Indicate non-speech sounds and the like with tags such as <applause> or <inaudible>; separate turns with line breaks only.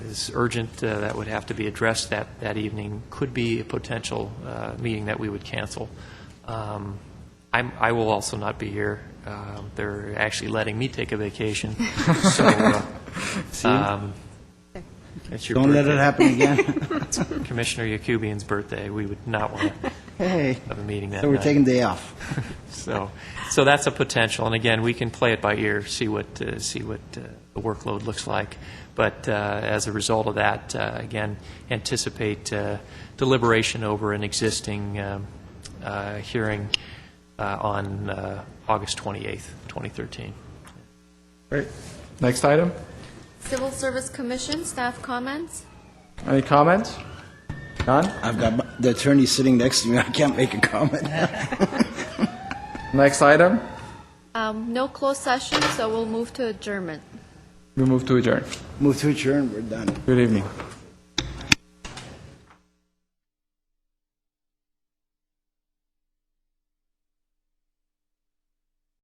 is urgent uh, that would have to be addressed that, that evening could be a potential uh, meeting that we would cancel. Um, I'm, I will also not be here. Uh, They're actually letting me take a vacation, so uh, um, it's your
Don't let it
birthday.
happen
<laughs>
again.
Commissioner Yakubian's birthday. We would not want to
Hey,
have a meeting that
so we're
night.
taking day
<laughs>
off.
So, so that's a potential, and again, we can play it by ear, see what, uh, see what uh, the workload looks like. But uh, as a result of that, uh, again, anticipate uh, deliberation over an existing um, uh, hearing uh, on uh, August 28th, 2013.
Great. Next item.
Civil Service Commission, staff comments?
Any comments? None?
I've got my- the attorney sitting next to me, I can't make a comment.
Next item.
Um, No closed session, so we'll move to adjournment.
We move to adjourn.
Move to adjourn, we're done.
Good evening.